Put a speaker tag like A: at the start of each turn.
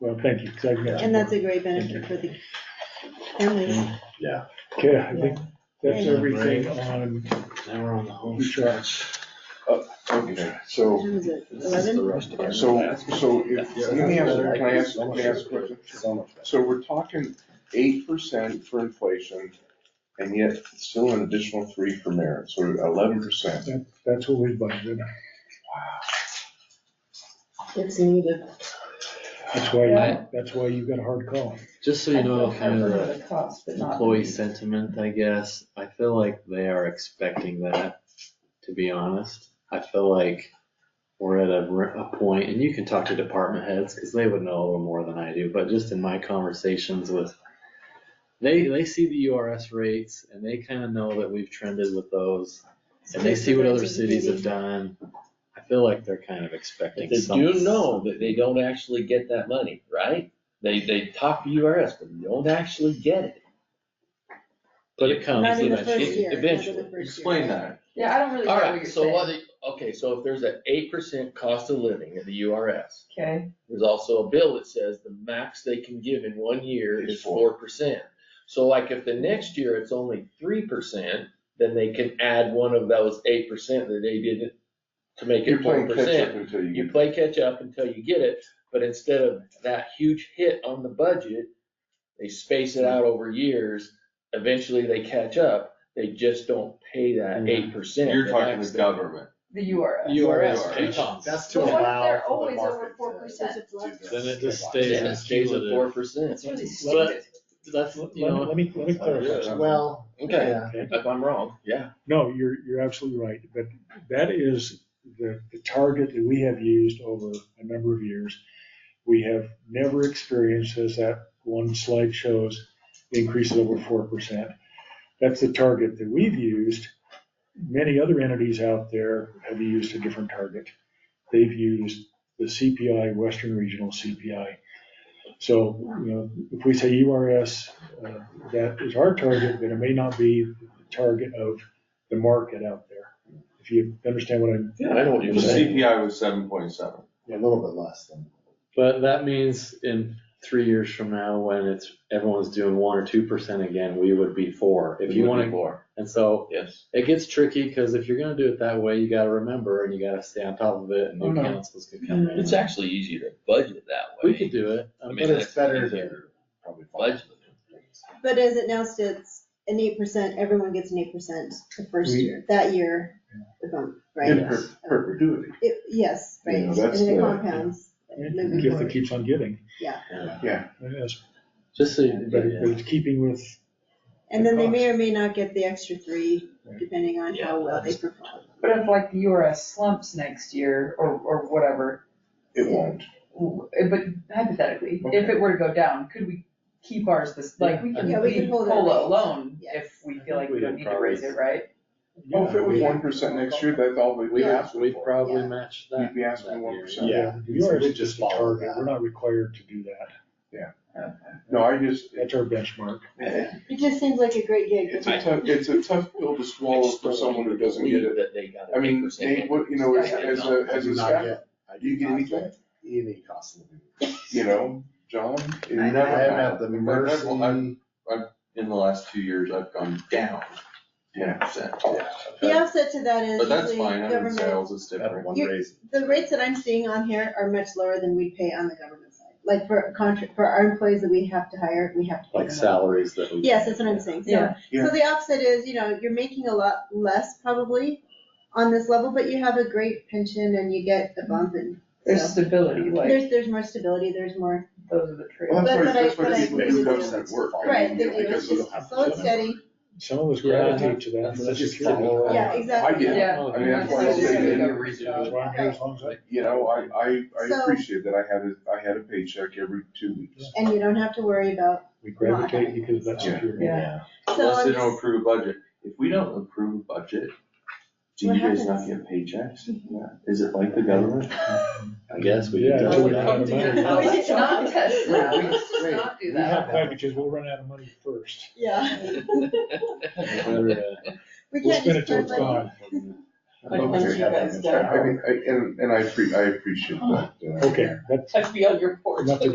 A: Well, thank you, 'cause I've got-
B: And that's a great benefit for the families.
A: Okay, I think that's
B: Thank
C: you.
A: everything on,
C: Now we're on the home
A: You tried.
C: stretch.
D: Okay, so,
B: What is it,
C: This is the
B: eleven?
C: rest of our.
D: so, so if, let me ask, can I ask, can I ask a question? So we're talking eight percent for inflation and yet still an additional three for merit, so eleven percent.
A: that's what we budgeted,
B: It's needed.
A: that's why,
E: Yeah.
A: that's why you got a hard call.
C: Just so
E: I
C: you
E: feel
C: know, kind of
E: covered
C: the
E: with cost, but not.
C: employee sentiment, I guess, I feel like they are expecting that, to be honest. I feel like we're at a, r- a point, and you can talk to department heads, because they would know a little more than I do, but just in my conversations with, they, they see the URS rates, and they kind of know that we've trended with those. And they see what other cities have done, I feel like they're kind of expecting
F: But They
C: some.
F: do know that they don't actually get that money, right? They, they talk to URS, but they don't actually get it.
C: But it comes
B: Not in the
C: eventually.
B: first year. not in the
F: Eventually.
B: first year.
D: that.
E: Yeah, I don't really know what you're
F: Alright, so what,
E: saying.
F: the- okay, so if there's an eight percent cost of living in the URS,
E: Okay,
F: there's also a bill that says the max they can give in one year
D: Is
F: is four percent. So like if the next year it's only three percent, then they can add one of those eight percent that they didn't to make
D: You're
F: it four
D: playing
F: percent.
D: catch up until you
F: You
D: get,
F: play catch up until you get it, but instead of that huge hit on the budget, they space it out over years. Eventually they catch up. They just don't pay that
C: Yeah.
F: eight percent.
D: government.
E: the URL.
C: URS
D: URS.
C: pitons.
A: That's
E: But
A: to
E: what if
A: allow
E: they're
A: for the
E: always over four
A: market.
E: percent?
C: Then it just stays
F: Yeah, it
C: as
F: stays at four
C: cumulative.
F: percent.
E: It's really
C: But-
E: stupid.
C: That's,
A: Let me,
C: you know,
A: let me, let me
F: Oh,
A: clarify.
C: well,
F: Okay,
A: Okay.
F: if I'm wrong, yeah.
A: No, you're, you're absolutely right, but that is the, the target that we have used over a number of years. We have never experienced, as that one slide shows, increases over four percent. That's the target that we've used. Many other entities out there have used a different target. They've used the CPI, Western Regional CPI. So, you know, if we say URS, uh, that is our target, then it may not be the target of the market out there. If you understand what I'm,
F: Yeah, I know what
A: The
F: saying.
D: was seven point seven.
C: a little bit less than.
F: But that means in three years from now, when it's, everyone's doing one or two percent again, we would be four. If you wanna,
D: more.
F: and so
D: Yes.
F: It gets tricky, because if you're gonna do it that way, you gotta remember and you gotta stay on top of it and
A: Oh,
F: new
A: no.
F: councils could come in.
G: It's actually easier to budget that
F: We
G: way.
F: could do it.
G: I
F: um,
G: mean,
F: but
G: that's easier
D: probably.
G: to Budget.
B: But as it now stands, an eight percent, everyone gets an eight percent the first
A: We-
B: year, that year, the bump,
D: In
B: right?
D: per- perpetuity.
B: It, yes,
D: You
B: right,
D: know,
B: and
D: that's
B: then it
D: the-
B: compounds. moving
A: gift that
B: forward.
A: keeps on giving.
D: Yeah.
A: It is,
F: Just so,
A: but
F: you-
A: but it's keeping with,
B: And then they may
A: cost.
B: or may not get the extra three, depending on how well they perform.
E: But if like the URS slumps next year or, or whatever,
D: It won't.
E: w- but hypothetically, if it were to go down, could we keep ours this, like, we can
B: Yeah, we can
E: leave
B: hold our
E: COLA
B: rates.
E: alone
B: Yeah.
E: if we
C: I
E: feel
C: think
E: like
C: we
E: we don't
C: did
E: need to raise it, right?
D: Well, if it was
B: Yeah.
D: one percent next year, that's all we
F: we,
D: we asked
F: we
D: for.
F: probably
B: Yeah.
F: matched that.
D: We'd be asking
F: that
D: one
F: year.
D: percent.
A: yeah, we are just a target, we're not required to do that.
D: No, I just,
A: That's our benchmark.
B: It just seems like a great gig.
D: it's a tough, it's a tough pill to
F: I
D: swallow
F: just
D: for
F: don't
D: someone who
F: want you to
D: doesn't get
F: believe
D: it.
F: That they got
D: I
F: an
D: mean, they,
F: 8%
D: what, you know, as, as a,
C: I
D: as
C: do
D: a
C: not
D: staff,
C: get- I
D: do you get
C: not
D: anything?
C: Any cost of living.
D: you know, John. you
E: I- I
D: never
C: I am
D: have.
C: at the
D: Well, I-
C: mercy,
H: in the last two years, I've gone down ten percent.
B: The offset to that is
H: But that's
B: usually
H: fine, I'm in
B: government,
H: sales, it's
C: I have
H: different.
C: one
B: You-
C: raise.
B: the rates that I'm seeing on here are much lower than we pay on the government side. Like for contract, for our employees that we have to hire, we have to pay them.
F: Like salaries that we.
B: Yes, that's what I'm saying, so,
E: Yeah.
D: Yeah.
B: so the offset is, you know, you're making a lot less probably on this level, but you have a great pension and you get a bump and,
E: There's
B: so.
E: stability, like,
B: There's, there's more stability, there's more,
E: those are the trade.
D: Well, that's
B: But-
D: why,
B: but I-
D: that's
B: but
D: why
B: I
D: people
B: agree
D: do
B: with
D: government
B: you.
D: work. I
B: right,
D: mean,
B: they do, it's
D: because of the-
B: just slow and steady,
A: Some of us
F: Yeah.
A: gravitate to that.
F: That's
A: for the
F: just
A: security.
F: follow up.
B: yeah, exactly.
D: I get it.
E: Yeah.
D: I mean, that's why I
E: That's
D: say,
E: just-
D: that,
A: That's why I'm here as long as I-
D: you know, I, I, I
B: So-
D: appreciate that I had a, I had a paycheck every two weeks.
B: And you don't have to worry about,
A: We gravitate because that's security.
E: Yeah.
B: so
H: Unless
B: I'm
H: they don't
B: just,
H: approve a budget. If we don't approve a budget, do
B: What
H: you guys not
B: happens?
H: get paychecks? Is it like the government?
F: I guess we.
A: Yeah,
F: could
A: that's
F: do
A: what
F: that.
A: we have to do.
B: house.
E: Let's not test
C: Wait,
E: that,
C: wait,
E: let's just
C: wait.
E: not do
A: We
E: that.
A: have packages, we'll run out of money first.
B: yeah,
F: Or, uh,
B: we
A: We'll
B: can't
A: spend
B: just
A: it till
B: turn
A: it's
B: money.
A: gone.
E: I don't think you guys Uh-huh.
D: I mean, I, and, and I, appre- I appreciate that. uh,
A: Okay, that's
E: Let's be on your porch.
A: enough to